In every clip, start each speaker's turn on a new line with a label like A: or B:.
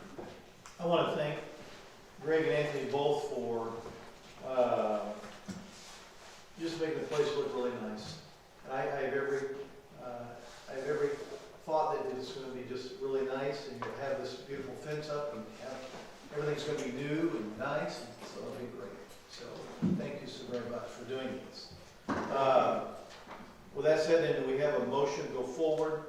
A: Uh, uh, fence up and have, everything's gonna be new and nice, and so it'll be great. So, thank you so very much for doing this. Uh, With that said, then, do we have a motion to go forward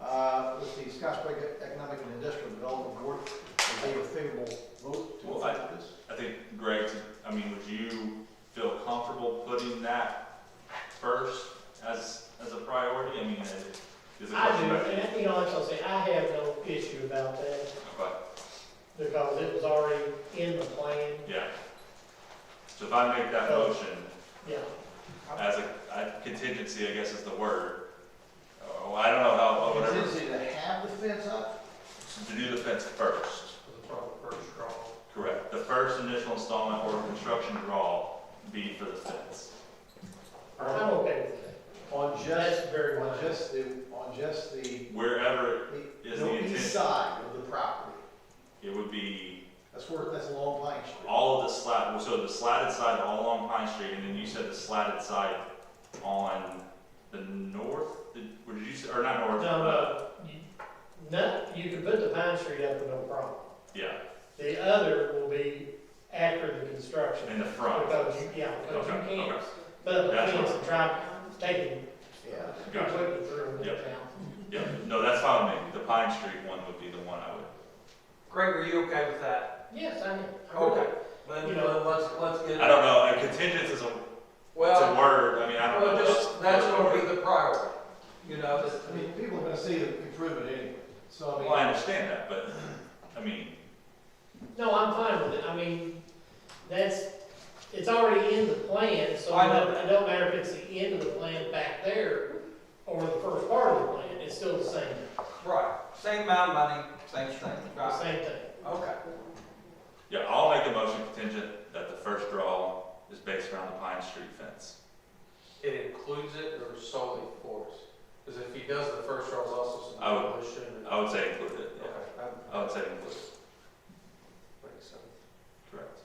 A: uh, with the Scottsburg Economic and Industrial Development Board? Is there a favorable vote to
B: Well, I-
A: approve this?
B: I think, Greg, I mean, would you feel comfortable putting that first as, as a priority? I mean, is is it?
C: I do, and to be honest, I'll say, I have no issue about that,
B: But,
C: because it was already in the plan,
B: yeah. So if I make
C: Oh.
B: that motion
C: yeah.
B: as a, I- contingency, I guess is the word. Oh, I don't know how, whatever,
A: Contingency to have the fence up?
B: to do the fence first.
D: the proper first draw.
B: Correct. The first initial installment or construction draw be for the fence.
C: I'm okay with that.
A: Uh, On just,
C: That's very
A: on
C: much.
A: just the, on just the,
B: Wherever
A: the
B: Is
A: the
B: the
A: east
B: intent-
A: side of the property.
B: it would be,
A: That's where, that's along Pine Street.
B: all of the slat, so the slatted side all along Pine Street, and then you said the slatted side on the north, did, or did you, say- or not north?
C: No,
B: uh,
C: no, you, no, you can put the Pine Street up with no problem.
B: Yeah,
C: The other will be after the construction.
B: in the front.
C: Because you, yeah, because you
B: Okay,
C: can't,
B: okay.
C: but the
B: That's
C: fence
B: what-
C: and try taking
A: Yeah.
B: Gotcha.
C: completely through the
B: Yep.
C: town.
B: Yeah, no, that's fine with me. The Pine Street one would be the one I would,
D: Greg, are you okay with that?
C: Yes, I am.
D: Then,
C: You know-
D: then let's, let's get.
B: I don't know, a contingent is a, it's a
D: Well,
B: word, I mean, I don't know.
D: well, just, that's gonna be the priority, you know, this-
A: I mean, people are gonna see the improvement anyway, so I mean.
B: Well, I understand that, but, I mean,
C: No, I'm fine with it, I mean, that's, it's already in the plan, so
D: I
C: it
D: know.
C: don't, it don't matter if it's the end of the plan back there or the first part of the plan, it's still the same,
D: right, same amount of money, same thing,
C: the
D: right?
C: same thing.
D: Okay,
B: Yeah, I'll make a motion contingent that the first draw is based around the Pine Street fence.
E: It includes it or solely for us? Because if he does the first draw, it's also some
B: I would-
E: demolition. and-
B: I would say include it,
E: Okay,
B: yeah.
E: that
B: I would say include it,
E: makes sense.
B: correct.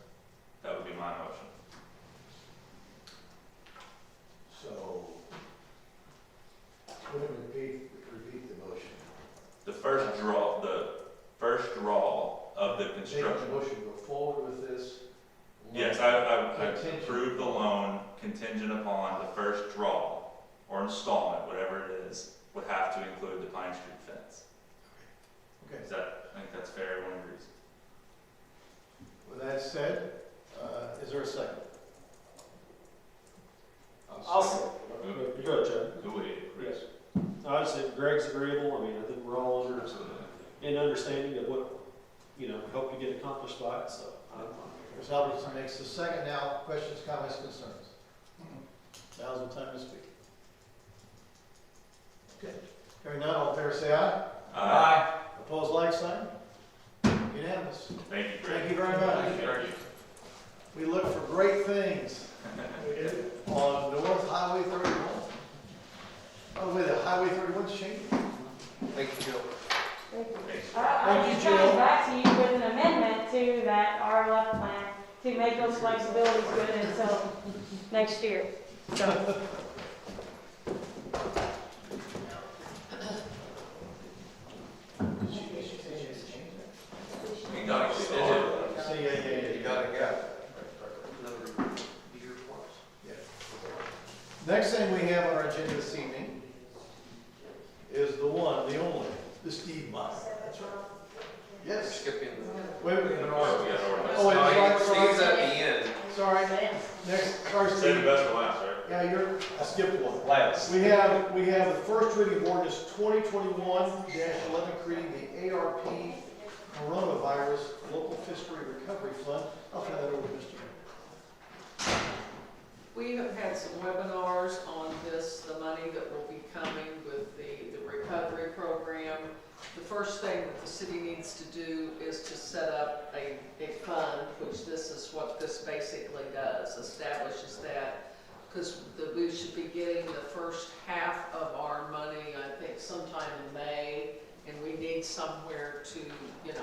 B: That would be my motion.
A: So, let me repeat, repeat the motion.
B: The first draw, the first draw of the
A: Make the
B: construction.
A: motion go forward with this.
B: Yes, I, I- I
A: Contingent.
B: approve the loan contingent upon the first draw or installment, whatever it is, would have to include the Pine Street fence.
A: Okay,
B: Is that, I think that's fair, everyone agrees.
A: with that said, uh, is there a second?
F: I'll say,
B: Who-
F: you go, Chad.
B: Who would agree?
F: Obviously, if Greg's agreeable, I mean, I think we're all under, in understanding of what, you know, we hope to get accomplished by it, so. I'm fine.
A: Chris Albertson makes the second now, questions, comments, concerns? Mm-hmm. Now's the time to speak. Okay, hearing none, all in favor say aye,
B: Uh,
A: opposed like sign, unanimous.
B: Uh, thank you, Greg.
A: Thank you very much.
B: Thank you.
A: We look for great things
C: We do.
A: on North Highway thirty-one. Oh, wait, the Highway thirty-one's changing.
D: thank you, Jill.
G: Thank you.
B: Thanks.
G: I-
A: Thank
G: I'm
A: you,
G: just
A: Jill.
G: coming back to you with an amendment to that RLF plan to make those flexibilities good until next year.
B: We got it.
A: See, yeah, yeah, yeah,
D: You
A: yeah.
D: gotta go. Another year plus.
A: Next thing we have on our agenda this evening is the one, the only, the Steve Meyer. That's right. Yes.
E: Skipping
A: Wait,
E: the.
A: wait,
E: an
B: Oh,
E: order.
B: we got an ordinance.
A: Oh,
E: No,
A: it's
E: he
A: like-
E: stays at the end.
A: sorry, next, sorry,
B: Save the
A: Steve.
B: best for last, right?
A: Yeah, you're, I skipped one.
B: Last.
A: We have, we have the first reading of ordinance twenty twenty-one eleven, creating the ARP coronavirus local fiscal recovery fund. I'll turn that over to Mr.
H: We have had some webinars on this, the money that will be coming with the, the recovery program. The first thing that the city needs to do is to set up a, a fund, which this is what this basically does, establishes that. Because the, we should be getting the first half of our money, I think sometime in May, and we need somewhere to, you know,